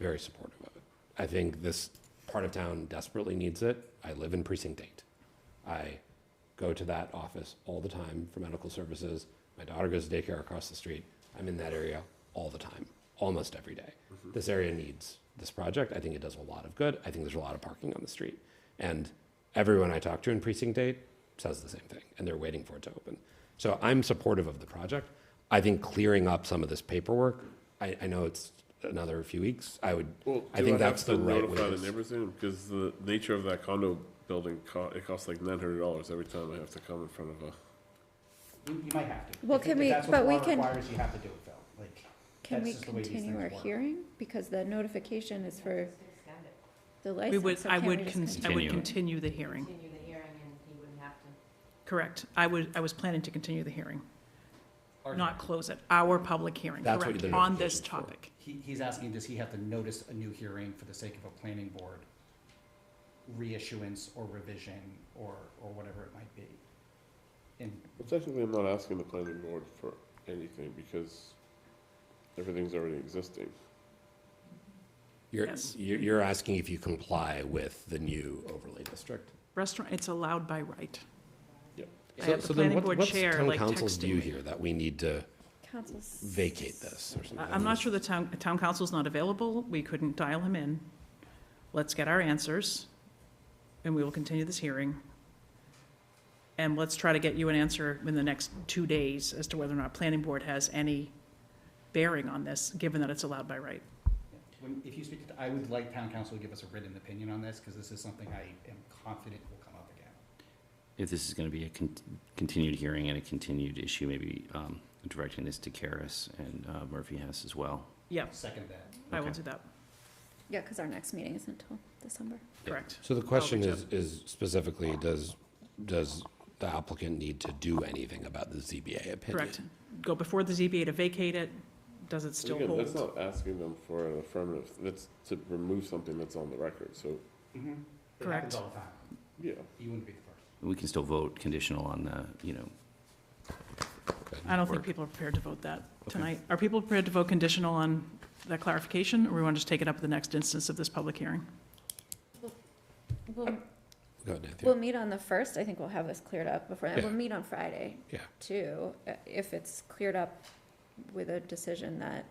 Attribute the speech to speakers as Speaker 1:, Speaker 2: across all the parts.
Speaker 1: very supportive of it. I think this part of town desperately needs it. I live in precinct eight. I go to that office all the time for medical services. My daughter goes to daycare across the street. I'm in that area all the time, almost every day. This area needs this project. I think it does a lot of good. I think there's a lot of parking on the street. And everyone I talk to in precinct eight says the same thing, and they're waiting for it to open. So I'm supportive of the project. I think clearing up some of this paperwork, I, I know it's another few weeks. I would,
Speaker 2: Well,
Speaker 1: I
Speaker 2: do
Speaker 1: think
Speaker 2: have
Speaker 1: that's the
Speaker 2: to
Speaker 1: right way.
Speaker 2: notify
Speaker 1: to
Speaker 2: the neighbors then? Because the nature of that condo building, co- it costs like nine hundred dollars every time I have to come in front of a.
Speaker 3: You, you might have to.
Speaker 4: Well,
Speaker 3: If-
Speaker 4: can
Speaker 3: if
Speaker 4: we-
Speaker 3: that's what
Speaker 4: but
Speaker 3: the
Speaker 4: we
Speaker 3: law
Speaker 4: can-
Speaker 3: Requires you have to do it, Phil, like.
Speaker 4: Can
Speaker 3: that's
Speaker 4: we
Speaker 3: just the way these
Speaker 4: continue
Speaker 3: things
Speaker 4: our
Speaker 3: work.
Speaker 4: hearing? Because the notification is for the
Speaker 5: We
Speaker 4: license.
Speaker 5: would,
Speaker 4: so
Speaker 5: I
Speaker 4: can
Speaker 5: would,
Speaker 4: we just
Speaker 5: con- I
Speaker 4: continue?
Speaker 5: would continue the hearing,
Speaker 6: Continue the hearing and he wouldn't have to.
Speaker 5: correct. I would, I was planning to continue the hearing, not close it, our public hearing,
Speaker 1: That's what
Speaker 5: correct,
Speaker 1: the
Speaker 5: on this
Speaker 1: notification's for.
Speaker 5: topic.
Speaker 3: He, he's asking, does he have to notice a new hearing for the sake of a planning board reissuance or revision or, or whatever it might be? And
Speaker 2: Well, technically, I'm not asking the planning board for anything because everything's already existing.
Speaker 1: You're,
Speaker 5: Yes.
Speaker 1: you're you're asking if you comply with the new overlay district?
Speaker 5: Restaurant, it's allowed by right.
Speaker 2: Yep.
Speaker 5: I
Speaker 1: So-
Speaker 5: have the
Speaker 1: so then
Speaker 5: planning
Speaker 1: what-
Speaker 5: board
Speaker 1: what's
Speaker 5: chair,
Speaker 1: town
Speaker 5: like,
Speaker 1: council's view
Speaker 5: texting me.
Speaker 1: here That we need to
Speaker 4: Council's-
Speaker 1: vacate this or
Speaker 5: I-
Speaker 1: something?
Speaker 5: I'm not sure the town, town council's not available, we couldn't dial him in. Let's get our answers, and we will continue this hearing. And let's try to get you an answer in the next two days as to whether or not planning board has any bearing on this, given that it's allowed by right.
Speaker 3: when, if you speak, to- I would like town council to give us a written opinion on this, because this is something I am confident will come up again.
Speaker 7: If this is going to be a con- continued hearing and a continued issue, maybe um, directing this to Karis and uh, Murphy Hess as well.
Speaker 5: Yeah,
Speaker 3: Second that.
Speaker 5: I will
Speaker 7: Okay.
Speaker 5: do that,
Speaker 4: Yeah, because our next meeting isn't until December.
Speaker 5: correct.
Speaker 1: So the question
Speaker 5: reach
Speaker 1: is, is specifically, does, does the applicant need to do anything about the ZBA opinion?
Speaker 5: Correct. Go before the ZBA to vacate it, does it
Speaker 2: And
Speaker 5: still
Speaker 2: Again, that's
Speaker 5: hold?
Speaker 2: not asking them for an affirmative, that's to remove something that's on the record, so,
Speaker 1: Mm-hmm.
Speaker 3: It happens
Speaker 5: Correct.
Speaker 3: all the time.
Speaker 2: yeah.
Speaker 3: You wouldn't be the first.
Speaker 7: We can still vote conditional on the, you know,
Speaker 5: I don't think
Speaker 7: work.
Speaker 5: people are prepared to vote that tonight. Are people prepared to vote conditional on that clarification, or we want to just take it up at the next instance of this public hearing?
Speaker 4: We'll,
Speaker 1: Go ahead, Nathan.
Speaker 4: we'll meet on the first, I think we'll have this cleared up before, that.
Speaker 1: Yeah.
Speaker 4: we'll meet on Friday.
Speaker 1: Yeah.
Speaker 4: Too, uh, if it's cleared up with a decision that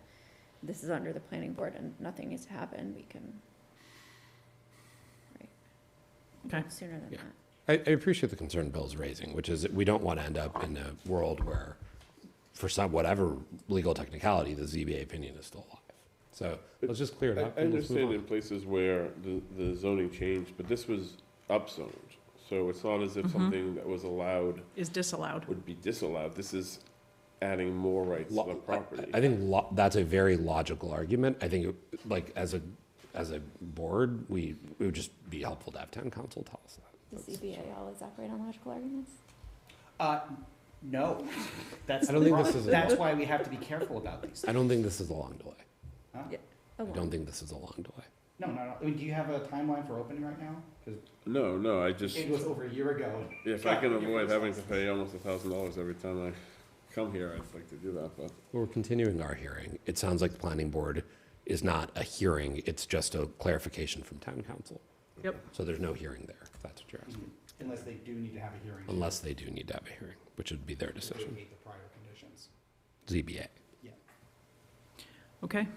Speaker 4: this is under the planning board and nothing needs to happen, we can. Right.
Speaker 5: Okay.
Speaker 4: Sooner than
Speaker 1: Yeah.
Speaker 4: that.
Speaker 1: I, I appreciate the concern Bill's raising, which is that we don't want to end up in a world where, for some, whatever legal technicality, the ZBA opinion is still alive. So let's just clear it
Speaker 2: I
Speaker 1: up.
Speaker 2: I
Speaker 1: and let's move
Speaker 2: understand
Speaker 1: on.
Speaker 2: in places where the, the zoning changed, but this was upzoned. So it's not as if
Speaker 5: Mm-hmm.
Speaker 2: something that was allowed
Speaker 5: Is disallowed.
Speaker 2: would be disallowed. This is adding more rights to
Speaker 1: Lo-
Speaker 2: the property.
Speaker 1: I I think lo- that's a very logical argument. I think, it- like, as a, as a board, we, it would just be helpful to have town council tell us
Speaker 4: The
Speaker 1: that. That's-
Speaker 4: ZBA always operate on logical arguments? Oh,
Speaker 3: Uh, no, that's
Speaker 1: I
Speaker 3: the
Speaker 1: don't think this
Speaker 3: problem.
Speaker 1: is a-
Speaker 3: That's why we have to be careful about these.
Speaker 1: I don't think this is a long delay.
Speaker 3: Huh?
Speaker 4: Yeah.
Speaker 1: I don't think this is a long delay.
Speaker 3: No, no, no. I mean, do you have a timeline for opening right now? Because
Speaker 2: No, no, I just,
Speaker 3: it was over a year ago.
Speaker 2: if I can avoid having to pay almost a thousand dollars every time I come here, I'd like to do that, but.
Speaker 1: We're continuing our hearing. It sounds like the planning board is not a hearing, it's just a clarification from town council.
Speaker 5: Yep.
Speaker 1: So there's no hearing there, if that's what you're asking,
Speaker 3: Unless they do need to have a hearing.
Speaker 1: unless they do need to have a hearing, which would be their
Speaker 3: to
Speaker 1: decision,
Speaker 3: vacate the prior conditions.
Speaker 1: ZBA.
Speaker 3: Yeah.
Speaker 5: Okay.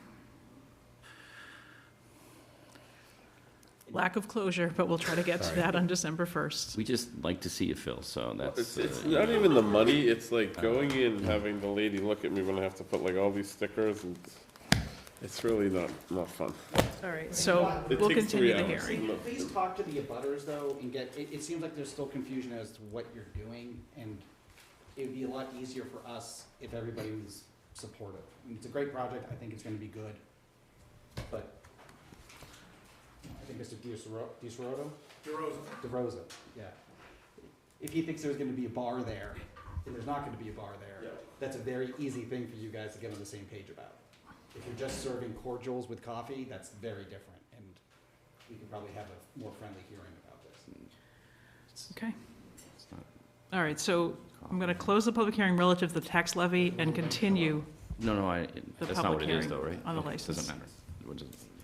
Speaker 5: Lack of closure, but we'll try to get to
Speaker 1: Sorry.
Speaker 5: that on December 1st.
Speaker 7: we just like to see you, Phil, so that's.
Speaker 2: It's, it's
Speaker 7: uh,
Speaker 2: not even the money, it's like going in, and having the lady look at me when I have to put like all these stickers and it's really not, not fun.
Speaker 5: All right, so
Speaker 2: It
Speaker 5: we'll
Speaker 2: takes
Speaker 5: continue
Speaker 2: three
Speaker 5: the
Speaker 2: hours.
Speaker 5: hearing.
Speaker 2: Look,
Speaker 3: Please talk to the abutters though and get, it, it seems like there's still confusion as to what you're doing and it would be a lot easier for us if everybody was supportive. I mean, It's a great project. I think it's gonna be good. But I think Mr. DeSoro, DeSoroto? DeRosa. DeRosa, yeah. If he thinks there's gonna be a bar there and there's not gonna be a bar there, that's a very easy thing for you guys to get on the same page about. If you're just serving cordials with coffee, that's very different, and we could probably have a more friendly hearing about this.
Speaker 5: Okay. All right, so I'm going to close the public hearing relative to the tax levy and continue
Speaker 7: No, no, I, that's
Speaker 5: public
Speaker 7: not what it is
Speaker 5: hearing
Speaker 7: though, right?
Speaker 5: on the
Speaker 7: Okay,
Speaker 5: license.
Speaker 7: Doesn't matter. It doesn't-